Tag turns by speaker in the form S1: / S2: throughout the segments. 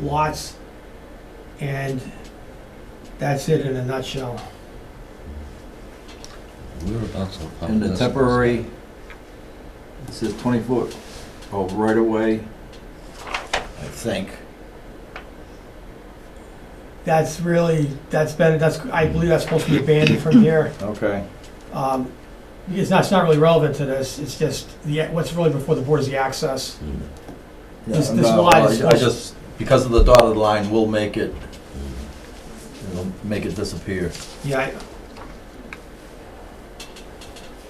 S1: lots, and that's it in a nutshell.
S2: Whereabouts on Palm
S3: And the
S2: Desert?
S3: temporary, it says oh, 20-foot of right-of-way,
S2: I think.
S1: That's really, that's been, that's, I believe that's supposed to be abandoned from here.
S3: okay.
S1: Um, It's not, it's not really relevant to this, it's just, the what's really before the board is the access. This- this
S3: No,
S1: lot
S3: well,
S1: is-
S3: I just, because of the dotted line, we'll make it, it'll make it disappear.
S1: Yeah, I-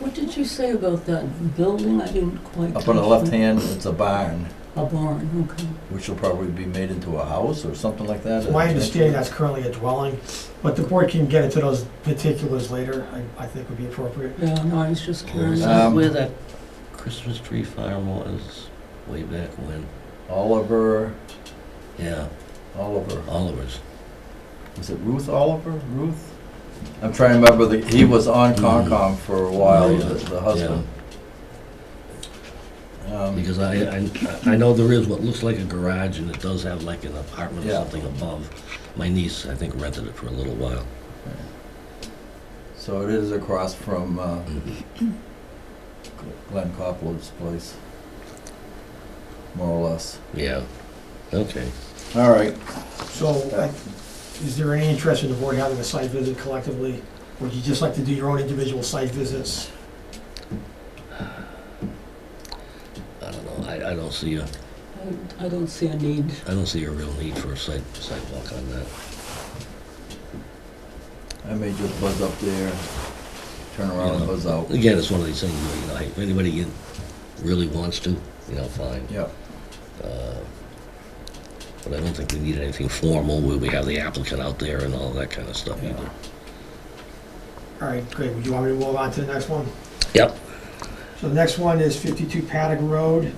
S4: What did you say about that building? I didn't quite.
S3: Up on the
S4: catch
S3: left
S4: that.
S3: hand, it's a barn,
S4: A barn, okay.
S3: which will probably be made into a house or something like that.
S1: it's my understanding that's currently a dwelling, but the board can get into those particulars later, I, I think would be appropriate.
S4: Yeah, no, I was just curious
S3: Um,
S4: where that,
S2: Christmas tree farm was way back when.
S3: Oliver,
S2: Yeah,
S3: Oliver,
S2: Oliver's.
S3: was it Ruth Oliver, Ruth? I'm trying to remember, the. he was on Concom for a while, the the husband.
S2: Yeah,
S3: Um,
S2: Because I, I, I know there is what looks like a garage and it does have like an apartment or
S3: Yeah.
S2: something above. My niece, I think, rented it for a little while.
S3: So it is across from uh, Glenn Coppoland's place, more or less.
S2: Yeah, okay.
S3: All right.
S1: So, I- is there any interest in the board having a site visit collectively? Would you just like to do your own individual site visits?
S2: I don't know, I, I don't see a,
S4: I- I don't see a need.
S2: I don't see a real need for a site, sidewalk on that.
S3: I may just buzz up there, turn around and buzz out.
S2: Again, it's one of these things, where, you know, hey, if anybody in- really wants to, you know, fine.
S3: Yep.
S2: Uh, But I don't think we need anything formal, where we have the applicant out there and all that kind of stuff
S3: Yeah.
S2: either.
S1: All right, great, would you want me to move on to the next one?
S2: Yep.
S1: So the next one is 52 Paddock Road.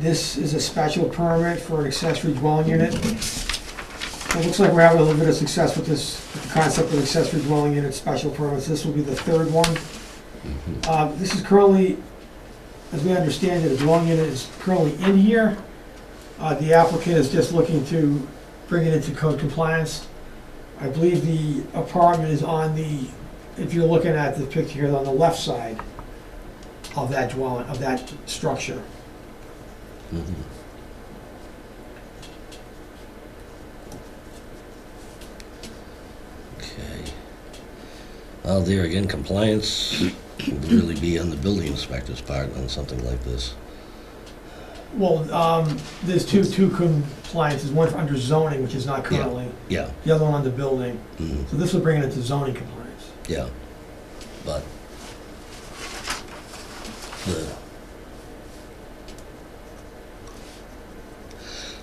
S1: This is a special permit for an accessory dwelling unit. So It looks like we're having a little bit of success with this, with the concept of accessory dwelling unit special permits. This will be the third one.
S2: Mm-hmm,
S1: Uh, This is currently, as we understand it, a dwelling unit is currently in here. Uh, The applicant is just looking to bring it into code compliance. I believe the apartment is on the, if you're looking at the picture here, on the left side of that dwelling, of that structure.
S2: Mhm. Okay. Well, there again, compliance would really be on the building inspector's part on something like this.
S1: Well, um, there's two, two compliances, one for under zoning, which is not currently,
S2: Yeah,
S1: the other one under building.
S2: mhm,
S1: So this would bring it into zoning compliance.
S2: yeah, but the,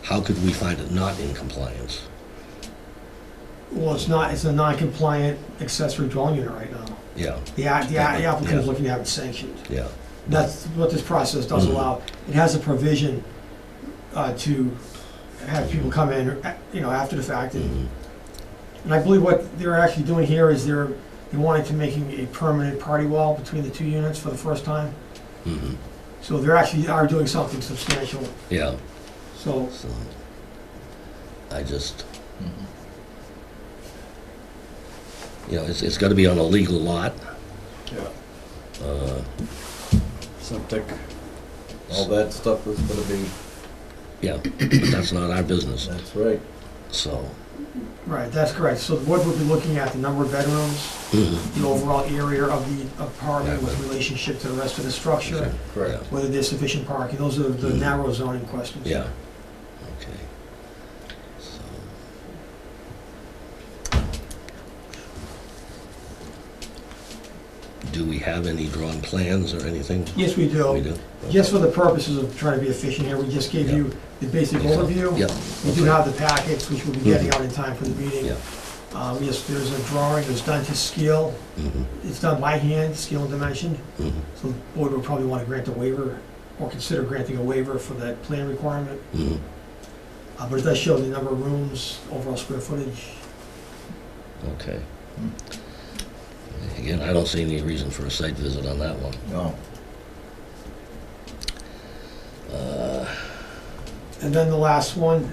S2: how could we find it not in compliance?
S1: Well, it's not, it's a non-compliant accessory dwelling unit right now.
S2: Yeah,
S1: The, a- the a- the applicant is
S2: Yeah.
S1: looking to have it sanctioned.
S2: yeah,
S1: That's what this process does
S2: Mhm.
S1: allow. It has a provision, uh, to have people come in, uh, you know, after the fact and
S2: mhm,
S1: And I believe what they're actually doing here is they're, they wanted to making a permanent party wall between the two units for the first time.
S2: mhm,
S1: So they're actually are doing something substantial.
S2: yeah,
S1: So
S2: so I just,
S3: Mhm.
S2: you know, it's, it's gotta be on a legal lot.
S3: Yeah.
S2: Uh,
S3: Septic, all that stuff is gonna be,
S2: Yeah, but that's not our business,
S3: that's right.
S2: so.
S1: right, that's correct. So the board would be looking at the number of bedrooms,
S2: mhm,
S1: the overall area of the apartment with relationship to the rest of the structure,
S3: Correct.
S1: whether there's sufficient parking. Those are the narrow zoning questions.
S2: Mm-hmm. Yeah, okay. So, Do we have any drawn plans or anything?
S1: Yes, we
S2: We
S1: do.
S2: do?
S1: Just for the purposes of trying to be efficient here, we just gave you the basic overview.
S2: Yeah, Mm-hmm.
S1: We do have the packets, which we'll be getting out in time for the meeting.
S2: Yeah.
S1: Um, yes, there's a drawing, it's done to scale,
S2: mhm,
S1: it's done by hand, scale and dimension,
S2: mhm,
S1: so the board would probably want to grant a waiver, or consider granting a waiver for that plan requirement,
S2: mhm,
S1: Uh, but it does show the number of rooms, overall square footage.
S2: okay. Again, I don't see any reason for a site visit on that one.
S3: No,
S2: Uh,
S1: And then the last one